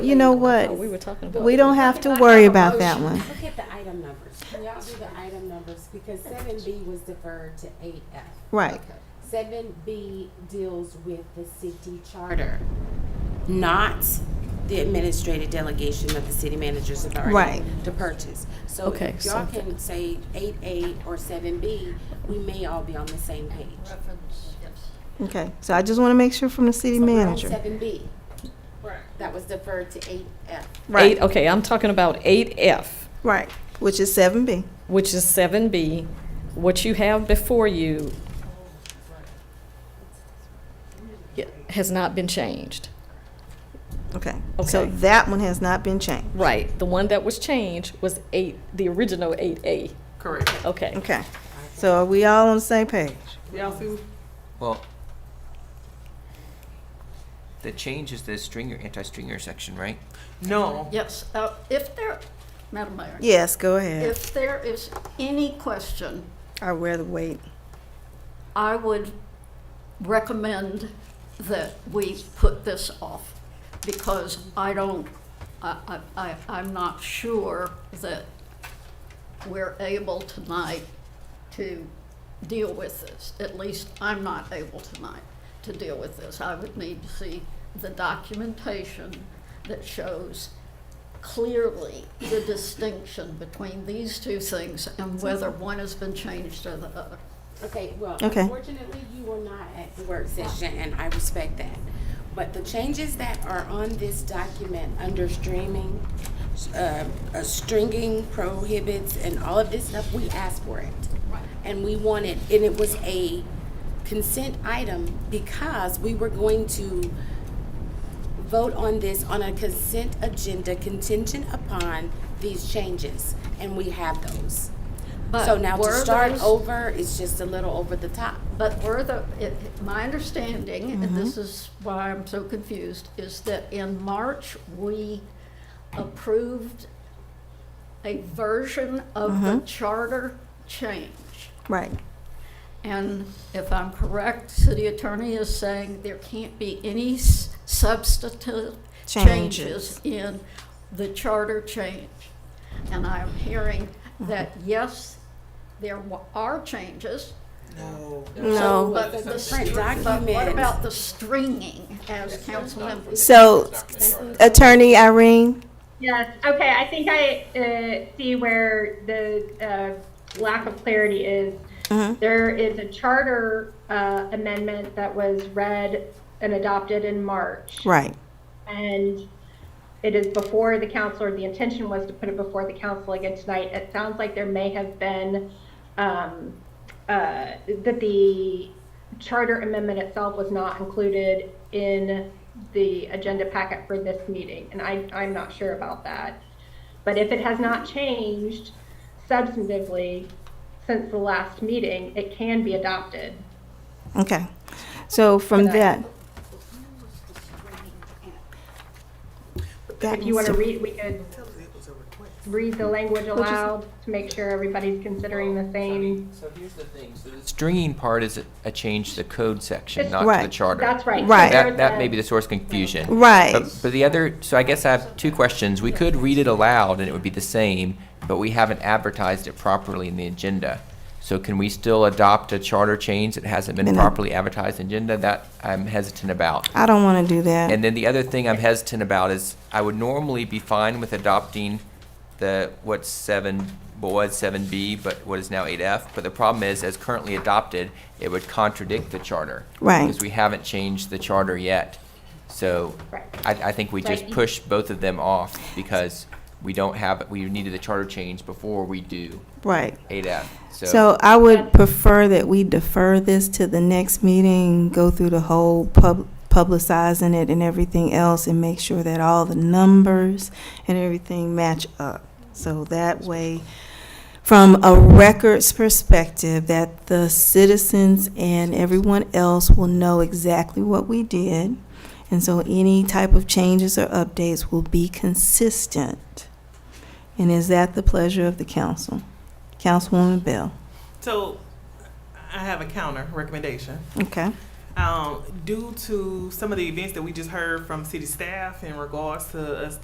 You know Oh, we were what? talking about. We don't have to worry about that one. Look at the item numbers. Can y'all do the item numbers? Because seven B was deferred to eight F. Right. Seven B deals with the city charter, not the administrative delegation of the city manager's authority Right. to purchase. So Okay, if y'all so- can say eight A or seven B, we may all be on the same page. Okay, so I just want to make sure from the city So we're on manager. Seven B. That was deferred to eight F. Right, Eight, oh. okay, I'm talking about eight F, right, which is seven B. which is seven B. What you have before you i- has not been changed. Okay, so Okay. that one has not been changed. Right, the one that was changed was eight, the original eight A. Correct. Okay, Okay, so are we all on the same page? Y'all see? Well, the change is the stringer, anti-stringer section, right? No. Yes, uh, if there, Madam Mayor, Yes, go ahead. if there is any question, I wear the weight. I would recommend that we put this off because I don't, I, I, I- I'm not sure that we're able tonight to deal with this. At least I'm not able tonight to deal with this. I would need to see the documentation that shows clearly the distinction between these two things and whether one has been changed or the other. Okay, well, Okay. unfortunately, you were not at the work session, and I respect that. But the changes that are on this document under streaming, uh, uh, stringing prohibits and all of this stuff, we asked for it. And we wanted, and it was a consent item because we were going to vote on this on a consent agenda contingent upon these changes, and we have those. But So now to were start those- over is just a little over the top. But were the, it- it- my understanding, and this is why I'm so confused, is that in March, we approved a version of the charter change. Right, And if I'm correct, city attorney is saying there can't be any s- substantive Changes. changes in the charter change. And I'm hearing that, yes, there wa- are changes, No. so, but the print str- but what document. about the stringing as council members? so Attorney Irene, Yes, okay, I think I uh, see where the uh, lack of clarity is. There is a charter uh, amendment that was read and adopted in March. right, And it is before the council, or the intention was to put it before the council again tonight. It sounds like there may have been, um, uh, that the charter amendment itself was not included in the agenda packet for this meeting, and I, I'm not sure about that. But if it has not changed substantively since the last meeting, it can be adopted. okay. So from that. That If you needs want to to- read, we could read the language aloud to make sure everybody's considering the same. So here's the thing, so the stringing part is a- a change to the code section, not to Right. the charter. That's right. Right. That, that may be the source of confusion. Right, But, but the other, so I guess I have two questions. We could read it aloud and it would be the same, but we haven't advertised it properly in the agenda. So can we still adopt a charter change that hasn't been Minute. properly advertised in the agenda? That I'm hesitant about. I don't want to do that. And then the other thing I'm hesitant about is I would normally be fine with adopting the, what's seven, what was seven B, but what is now eight F. But the problem is, as currently adopted, it would contradict the charter. Right. Because we haven't changed the charter yet. So Right. I, I think we just Right. push both of them off because we don't have, we needed the charter change before we do Right. eight F. So, So I would prefer that we defer this to the next meeting, go through the whole pub, publicizing it and everything else and make sure that all the numbers and everything match up. So that way, from a records perspective, that the citizens and everyone else will know exactly what we did. And so any type of changes or updates will be consistent. And is that the pleasure of the council? Councilwoman Bell? So I have a counter recommendation. Okay. Um, due to some of the events that we just heard from city staff in regards to us